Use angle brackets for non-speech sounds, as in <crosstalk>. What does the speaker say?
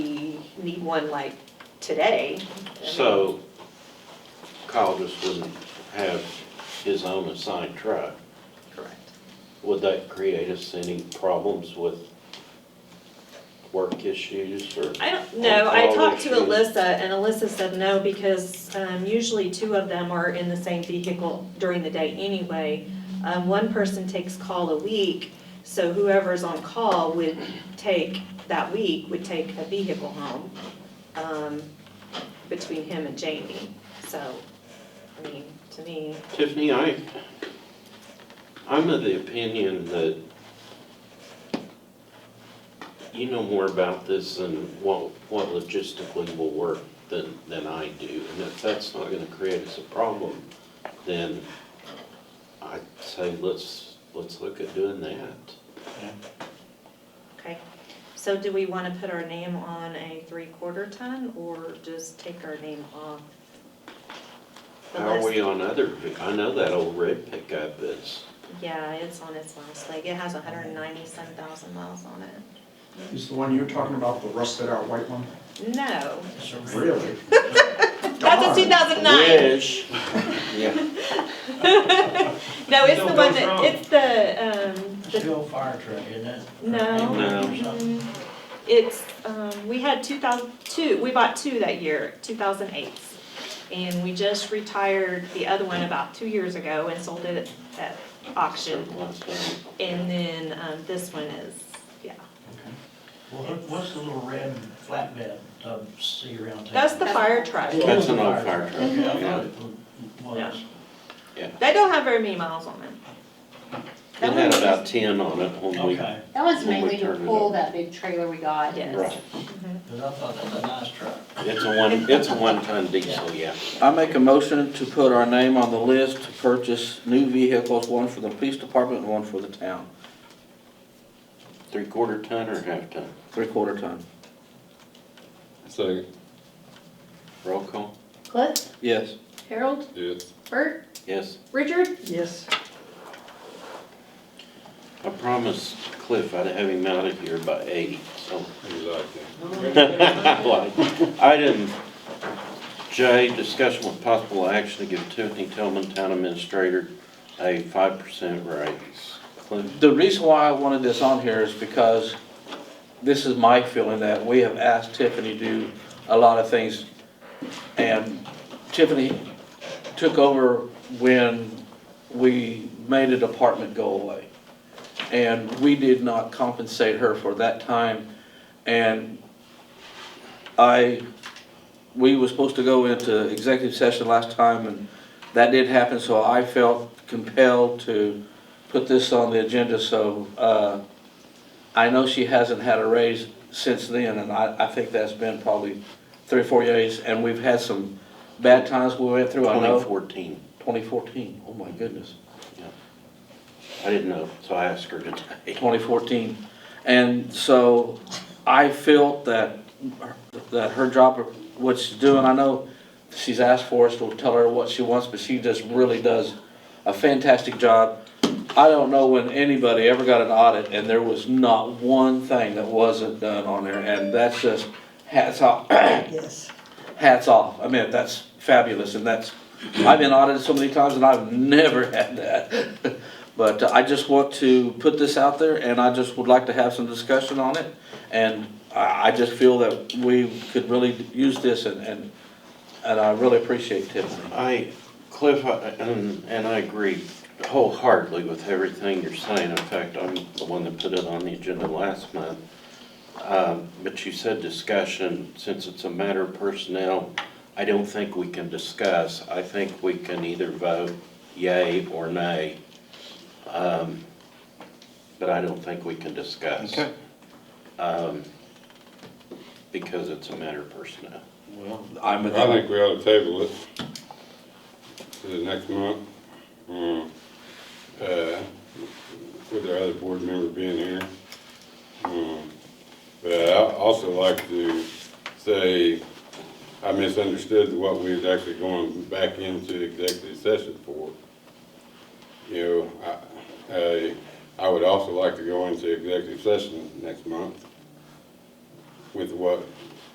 need one like today. I mean, So Kyle just wouldn't have his own assigned truck. Correct. Would that create us any problems with work issues or? I don't know, I Or talked to issues? Alyssa, and Alyssa said no, because um, usually two of them are in the same vehicle during the day anyway. Um, One person takes call a week, so whoever's on call would take, that week, would take a vehicle home um, between him and Jamie. So, I mean, to me, Tiffany, I, I'm of the opinion that you know more about this and what, what logistically will work than, than I do. And if that's not gonna create us a problem, then I'd say let's, let's look at doing that. okay. So do we want to put our name on a three-quarter ton, or just take our name off the How are list? we on other, ve- I know that old red pickup is, Yeah, it's on its last leg. It has hundred and ninety-seven thousand miles on it. Is the one you were talking about, the rusted out white one? No, Really? that's a two thousand nine. wish, Yeah. No, it's the Don't one go that, wrong. it's the, um, It's the, still a fire truck, isn't it? no. No. Mm, It's, um, we had two thousand, two, we bought two that year, two thousand eight. And we just retired the other one about two years ago and sold it at auction. Certain last name. And then, um, this one is, yeah, Well, what- what's the little red flatbed, um, see around town? that's the fire truck. Well, That's an the old fire truck, Yeah, I yeah. thought it was. They don't have very many miles on them. It had about ten on it when we Okay, That was When we mainly to turned it pull up. that big trailer we got. Yes. Right, because I thought that's a nice truck. it's a one, it's a one-ton diesel, yeah. I make a motion to put our name on the list to purchase new vehicles, one for the police department and one for the town, Three-quarter ton or half-ton? three-quarter ton. So, Roll call? Cliff, Yes. Harold, yes. Bert, Yes. Richard, Yes. I promised Cliff I'd have him out of here by eight, so. <laughs> Exactly. Item J, discussion with possible action to give Tiffany Tillman, Town Administrator, a five percent raise. Cliff? The reason why I wanted this on here is because this is my feeling that we have asked Tiffany to do a lot of things. And Tiffany took over when we made a department go away. And we did not compensate her for that time. And I, we were supposed to go into executive session last time and that did happen, so I felt compelled to put this on the agenda, so, uh, I know she hasn't had a raise since then, and I, I think that's been probably three or four years, and we've had some bad times we went through, I Twenty know. fourteen. Twenty fourteen. Oh my goodness. I didn't know, so I asked her today. 2014. And so I felt that, that her job, what she's doing, I know she's asked for us to tell her what she wants, but she just really does a fantastic job. I don't know when anybody ever got an audit and there was not one thing that wasn't done on there, and that's just hats off. Hats off. I mean, that's fabulous, and that's, I've been audited so many times and I've never <laughs> had that. But uh, I just want to put this out there, and I just would like to have some discussion on it. And I, I just feel that we could really use this, and, and, and I really appreciate Tiffany. I, Cliff, I- and, and I agree wholeheartedly with everything you're saying. In fact, I'm the one that put it on the agenda last month. Um, But you said discussion, since it's a matter of personnel, I don't think we can discuss. I think we can either vote yay or nay. Um, But I don't think we can discuss. Okay. Um, Because it's a matter of personnel. Well, I'm, I think we ought to table it to the next month. um, uh, With our other board member being here. Um, But I also like to say, I misunderstood what we was actually going back into executive session for. You know, I, I- I would also like to go into executive session next month with what